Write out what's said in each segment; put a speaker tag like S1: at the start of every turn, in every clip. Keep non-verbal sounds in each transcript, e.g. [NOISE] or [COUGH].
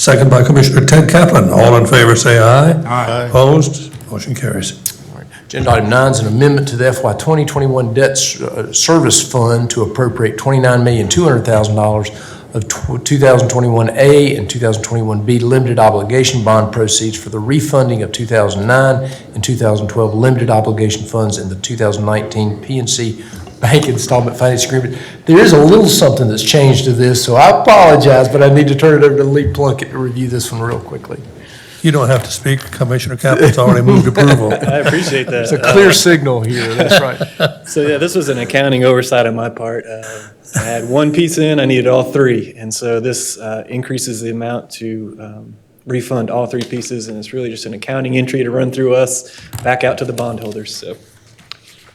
S1: Second by Commissioner Ted Kaplan. All in favor, say aye.
S2: Aye.
S1: Opposed? Motion carries.
S3: Agenda item nine is an amendment to the FY 2021 Debt S- uh, Service Fund to appropriate $29,200,000 of tw- 2021A and 2021B limited obligation bond proceeds for the refunding of 2009 and 2012 limited obligation funds in the 2019 PNC Bank Installment Finance Agreement. There is a little something that's changed to this, so I apologize, but I need to turn it over to Lee Plunkett to review this one real quickly.
S1: You don't have to speak. Commissioner Kaplan's already moved [LAUGHS] approval.
S4: I appreciate that.
S3: It's a clear signal here, that's right.
S4: Uh, So, yeah, this was an accounting oversight on my part. Uh, I had one piece in, I needed all three. And so this uh, increases the amount to um, refund all three pieces, and it's really just an accounting entry to run through us back out to the bondholders, so.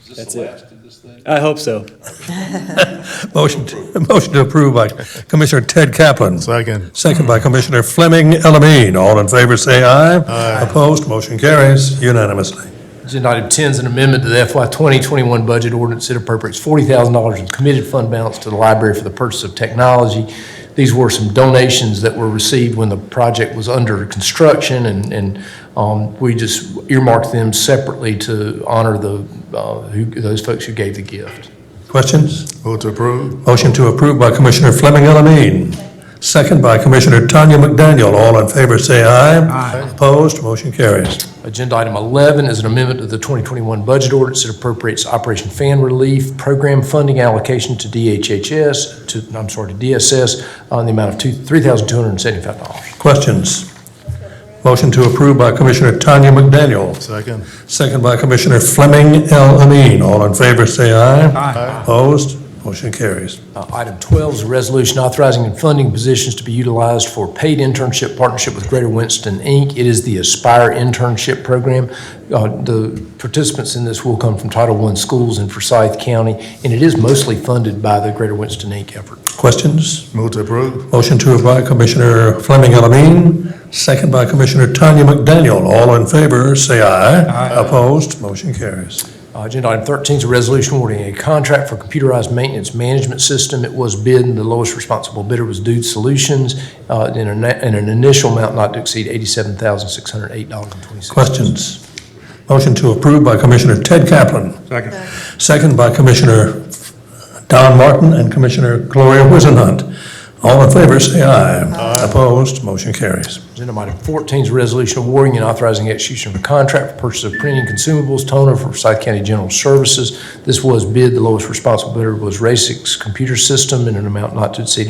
S4: Is this the last of this thing? I hope so.
S1: Motion, to- motion to approve by Commissioner Ted Kaplan.
S2: Second.
S1: Second by Commissioner Fleming Elamine. All in favor, say aye. Aye. Opposed? Motion carries unanimously.
S3: Agenda item 10 is an amendment to the FY 2021 budget ordinance that appropriates $40,000 in committed fund balance to the library for the purchase of technology. These were some donations that were received when the project was under construction, and, and um, we just earmarked them separately to honor the, uh, who- those folks who gave the gift.
S1: Questions?
S2: Vote to approve.
S1: Motion to approve by Commissioner Fleming Elamine, second by Commissioner Tanya McDaniel. All in favor, say aye. Aye. Opposed, motion carries.
S3: Agenda item 11 is an amendment to the 2021 budget ordinance that appropriates Operation Fan Relief Program funding allocation to DHHS, to, I'm sorry, to DSS, on the amount of two- $3,275.
S1: Questions? Motion to approve by Commissioner Tanya McDaniel,
S2: Second.
S1: second by Commissioner Fleming Elamine. All in favor, say aye. Aye. Opposed, motion carries.
S3: Uh, Item 12 is a resolution authorizing and funding positions to be utilized for paid internship partnership with Greater Winston, Inc. It is the Aspire Internship Program. Uh, The participants in this will come from Title I schools in Forsyth County, and it is mostly funded by the Greater Winston, Inc. effort.
S1: Questions?
S2: Vote to approve.
S1: Motion to approve by Commissioner Fleming Elamine, second by Commissioner Tanya McDaniel. All in favor, say aye. Aye. Opposed, motion carries.
S3: Uh, Agenda item 13 is a resolution awarding a contract for computerized maintenance management system. It was bid, and the lowest responsible bidder was Dude Solutions uh, in an in an initial amount not to exceed $87,608.26.
S1: Questions? Motion to approve by Commissioner Ted Kaplan. Second. Second by Commissioner Don Martin and Commissioner Gloria Wizenhunt. All in favor, say aye. Aye. Opposed, motion carries.
S3: Agenda item 14 is a resolution awarding and authorizing execution of a contract for purchase of printing consumables toner for Forsyth County General Services. This was bid, the lowest responsible bidder was Racix Computer System in an amount not to exceed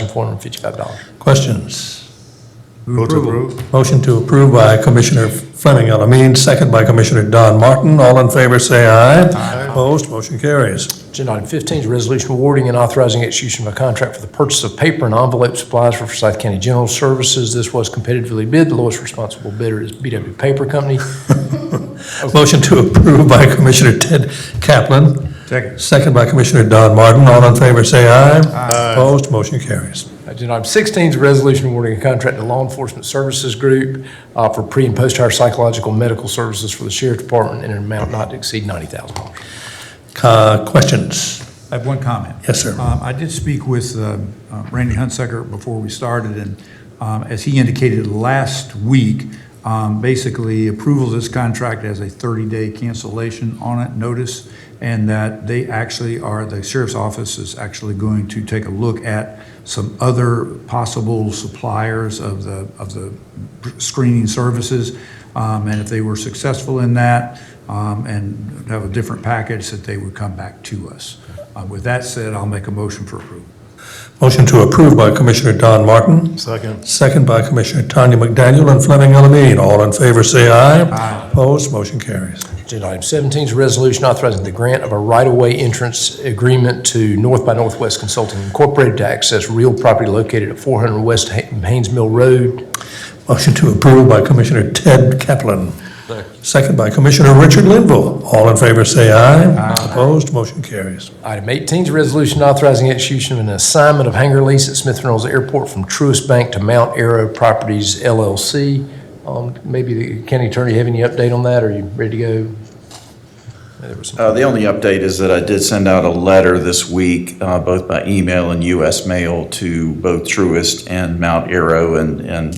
S3: $115,455.
S1: Questions?
S2: Vote to approve.
S1: Motion to approve by Commissioner Fleming Elamine, second by Commissioner Don Martin. All in favor, say aye. Aye. Opposed, motion carries.
S3: Agenda item 15 is a resolution awarding and authorizing execution of a contract for the purchase of paper and envelope supplies for Forsyth County General Services. This was competitively bid. The lowest responsible bidder is BW Paper Company.
S1: Motion to approve by Commissioner Ted Kaplan. Second. Second by Commissioner Don Martin. All in favor, say aye. Aye. Opposed, motion carries.
S3: Agenda item 16 is a resolution awarding a contract to Law Enforcement Services Group uh, for pre and post-hire psychological medical services for the Sheriff Department in an amount not to exceed $90,000.
S1: Uh, Questions?
S5: I have one comment.
S1: Yes, sir.
S5: Um, I did speak with um, uh, Randy Hunsucker before we started, and um, as he indicated last week, um, basically approval of this contract has a 30-day cancellation on it notice, and that they actually are, the sheriff's office is actually going to take a look at some other possible suppliers of the, of the screening services. Um, And if they were successful in that um, and have a different package, that they would come back to us. Uh, With that said, I'll make a motion for approval.
S1: Motion to approve by Commissioner Don Martin,
S2: Second.
S1: second by Commissioner Tanya McDaniel and Fleming Elamine. All in favor, say aye. Aye. Opposed, motion carries.
S3: Agenda item 17 is a resolution authorizing the grant of a right-of-way entrance agreement to North by Northwest Consulting Incorporated to access real property located at 400 West Ha- Haynes Mill Road.
S1: Motion to approve by Commissioner Ted Kaplan, second by Commissioner Richard Linville. All in favor, say aye. Aye. Opposed, motion carries.
S3: Item 18 is a resolution authorizing execution of an assignment of hangar lease at Smith Reynolds Airport from Truist Bank to Mount Arrow Properties LLC. Um, Maybe the county attorney, have any update on that? Are you ready to go? There was some-
S6: Uh, The only update is that I did send out a letter this week, uh, both by email and US mail, to both Truist and Mount Arrow and and